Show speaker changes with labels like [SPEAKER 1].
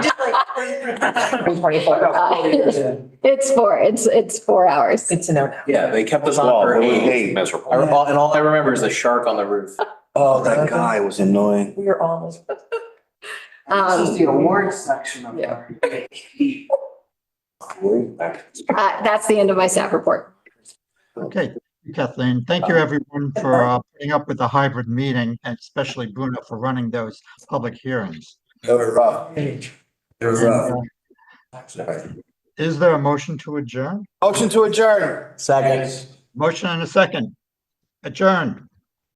[SPEAKER 1] I'm twenty-four. Uh,
[SPEAKER 2] It's four, it's, it's four hours.
[SPEAKER 1] Good to know now.
[SPEAKER 3] Yeah, they kept us
[SPEAKER 4] Well,
[SPEAKER 3] on for
[SPEAKER 4] it was
[SPEAKER 3] eight.
[SPEAKER 4] eight.
[SPEAKER 3] I
[SPEAKER 4] Miserable.
[SPEAKER 3] recall- And all I remember is the shark on the roof.
[SPEAKER 4] Oh, that guy was annoying.
[SPEAKER 1] We are almost.
[SPEAKER 5] This is
[SPEAKER 2] Um,
[SPEAKER 5] the award section of
[SPEAKER 2] yeah.
[SPEAKER 5] our
[SPEAKER 2] uh, that's the end of my staff report.
[SPEAKER 6] Okay, thank you, Kathleen, thank you everyone for uh, putting up with the hybrid meeting and especially Bruno for running those public hearings.
[SPEAKER 4] That was rough. It was rough.
[SPEAKER 6] Is there a motion to adjourn?
[SPEAKER 4] Motion to adjourn. Second.
[SPEAKER 6] Motion and a second. Adjourned.